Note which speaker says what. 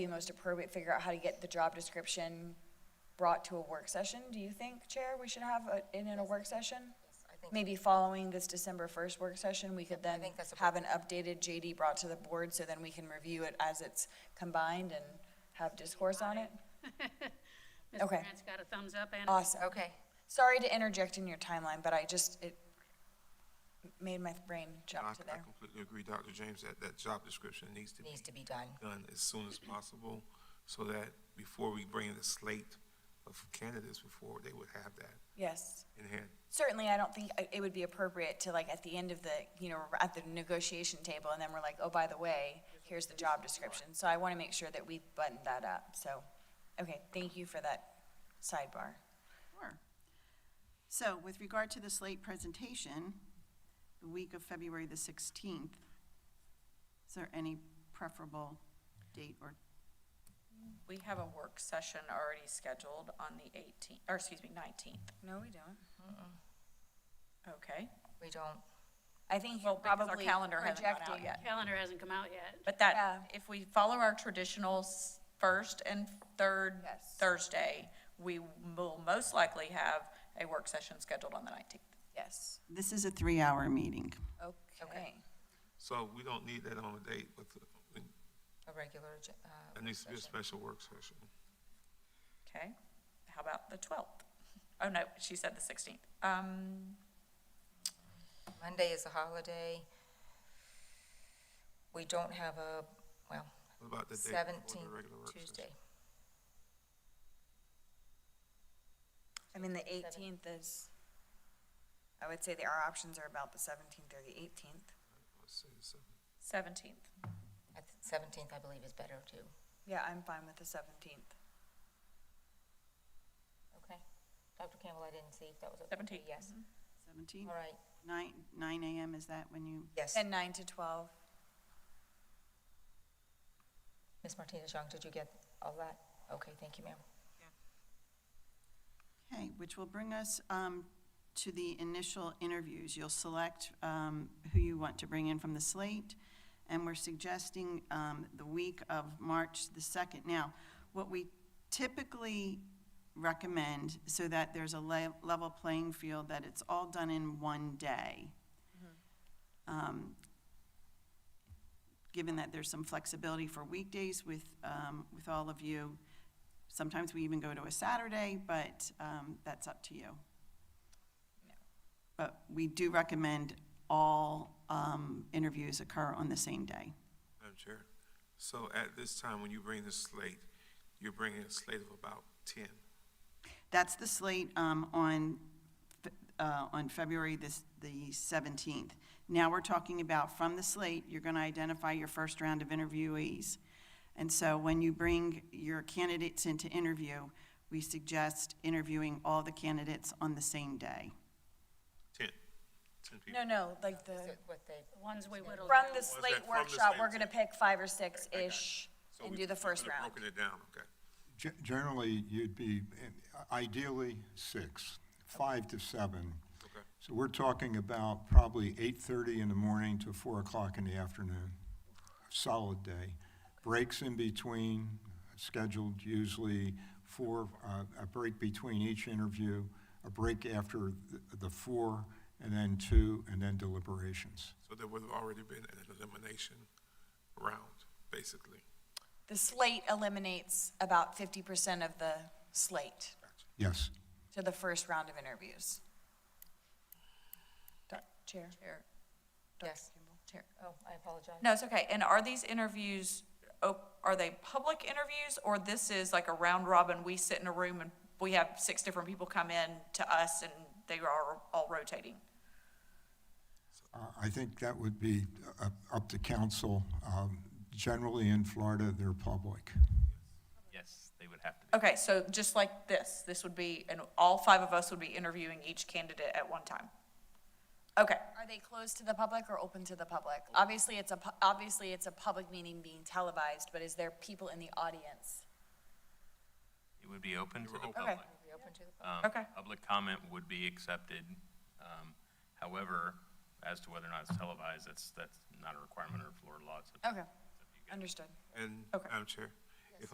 Speaker 1: be most appropriate, figure out how to get the job description brought to a work session, do you think, Chair, we should have it in in a work session?
Speaker 2: I think-
Speaker 1: Maybe following this December first work session, we could then
Speaker 2: think that's
Speaker 1: have an updated JD brought to the board, so then we can review it as it's combined and have discourse on it?
Speaker 3: Mr.
Speaker 1: Okay. Uh,
Speaker 3: Grant's got a thumbs up and.
Speaker 1: Awesome.
Speaker 2: Okay,
Speaker 1: Sorry to interject in your timeline, but I just, it made my brain
Speaker 4: I
Speaker 1: jump to
Speaker 4: I
Speaker 1: there.
Speaker 4: completely agree, Dr. James, that that job description needs to be
Speaker 2: needs to be done.
Speaker 4: done as soon as possible, so that before we bring the slate of candidates before, they would have that
Speaker 1: Yes.
Speaker 4: in hand.
Speaker 1: Certainly, I don't think I- it would be appropriate to like at the end of the, you know, we're at the negotiation table and then we're like, oh, by the way, here's the job description. So I want to make sure that we button that up. So, okay, thank you for that sidebar.
Speaker 5: Sure. So with regard to the slate presentation, the week of February the 16th, is there any preferable date or,
Speaker 6: We have a work session already scheduled on the 18th, or excuse me, 19th.
Speaker 1: No, we don't.
Speaker 6: Okay.
Speaker 2: We don't,
Speaker 1: I think
Speaker 6: Well,
Speaker 1: you're
Speaker 6: because our
Speaker 1: probably
Speaker 6: calendar hasn't gone out
Speaker 1: projecting.
Speaker 6: yet.
Speaker 3: Calendar hasn't come out yet.
Speaker 6: But that,
Speaker 1: Yeah.
Speaker 6: if we follow our traditional s- first and third
Speaker 1: Yes.
Speaker 6: Thursday, we will most likely have a work session scheduled on the 19th.
Speaker 1: Yes,
Speaker 5: this is a three-hour meeting.
Speaker 1: okay.
Speaker 4: So we don't need that on a date with,
Speaker 2: a regular, ag- uh.
Speaker 4: it needs to be a
Speaker 2: session.
Speaker 4: special work session.
Speaker 6: Okay? How about the 12th? Oh, no, she said the 16th. Um,
Speaker 2: Monday is a holiday. We don't have a, well,
Speaker 4: What about the date before
Speaker 2: seventeenth,
Speaker 4: the regular work session?
Speaker 2: Tuesday.
Speaker 1: I mean, the eighteenth is, I would say that our options are about the seventeenth or the eighteenth.
Speaker 4: Let's say the 7th.
Speaker 6: 17th.
Speaker 2: Seventeenth, I believe, is better too.
Speaker 1: Yeah, I'm fine with the seventeenth.
Speaker 2: Okay. Dr. Campbell, I didn't see if that was okay.
Speaker 6: 17th,
Speaker 2: Yes.
Speaker 5: 17th,
Speaker 2: All right,
Speaker 5: 9, 9 AM, is that when you,
Speaker 2: yes.
Speaker 1: And nine to twelve.
Speaker 2: Ms. Martinez-Young, did you get all that? Okay, thank you, ma'am.
Speaker 5: okay, which will bring us um, to the initial interviews. You'll select um, who you want to bring in from the slate, and we're suggesting um, the week of March the 2nd. Now, what we typically recommend so that there's a le- level playing field, that it's all done in one day. Um, Given that there's some flexibility for weekdays with, um, with all of you, sometimes we even go to a Saturday, but um, that's up to you. But we do recommend all um, interviews occur on the same day.
Speaker 4: Madam Chair, so at this time, when you bring the slate, you're bringing a slate of about 10.
Speaker 5: That's the slate um, on, Fe- uh, on February this- the 17th. Now we're talking about from the slate, you're going to identify your first round of interviewees. And so when you bring your candidates into interview, we suggest interviewing all the candidates on the same day.
Speaker 4: 10, 10 people.
Speaker 1: No, no, like the,
Speaker 2: Is it What they,
Speaker 3: The ones we whittled
Speaker 1: from
Speaker 3: down.
Speaker 1: the slate
Speaker 4: from the
Speaker 1: workshop,
Speaker 4: slate
Speaker 1: we're gonna
Speaker 4: to-
Speaker 1: pick five or
Speaker 4: I got it.
Speaker 1: six-ish
Speaker 4: So
Speaker 1: and
Speaker 4: we-
Speaker 1: do the
Speaker 4: we
Speaker 1: first
Speaker 4: could've
Speaker 1: round.
Speaker 4: Broken it down, okay.
Speaker 7: Ge- Generally, you'd be ideally six, five to seven.
Speaker 4: Okay.
Speaker 7: So we're talking about probably 8:30 in the morning to 4 o'clock in the afternoon. Solid day. Breaks in between, scheduled usually for uh, a break between each interview, a break after th- the four, and then two, and then deliberations.
Speaker 4: So there would have already been an elimination round, basically.
Speaker 1: The slate eliminates about fifty percent of the slate
Speaker 7: Yes.
Speaker 1: to the first round of interviews. Doc- Chair?
Speaker 2: yes.
Speaker 1: Chair.
Speaker 2: Oh, I apologize.
Speaker 6: No, it's okay. And are these interviews, op- are they public interviews or this is like a round robin? We sit in a room and we have six different people come in to us and they are all rotating?
Speaker 7: Uh, I think that would be uh, up to council. Um, Generally, in Florida, they're public.
Speaker 8: Yes, they would have to be.
Speaker 6: Okay, so just like this, this would be, and all five of us would be interviewing each candidate at one time? Okay,
Speaker 1: Are they closed to the public or open to the public? Obviously, it's a, pu- obviously, it's a public meeting being televised, but is there people in the audience?
Speaker 8: It would be open to the
Speaker 6: Okay.
Speaker 8: public.
Speaker 2: We open to the public?
Speaker 8: Um,
Speaker 6: Okay.
Speaker 8: Public comment would be accepted. Um, However, as to whether or not it's televised, that's, that's not a requirement under Florida law. It's up-
Speaker 1: Okay,
Speaker 8: it's up to you guys.
Speaker 1: understood.
Speaker 4: And,
Speaker 6: Okay.
Speaker 4: Madam Chair,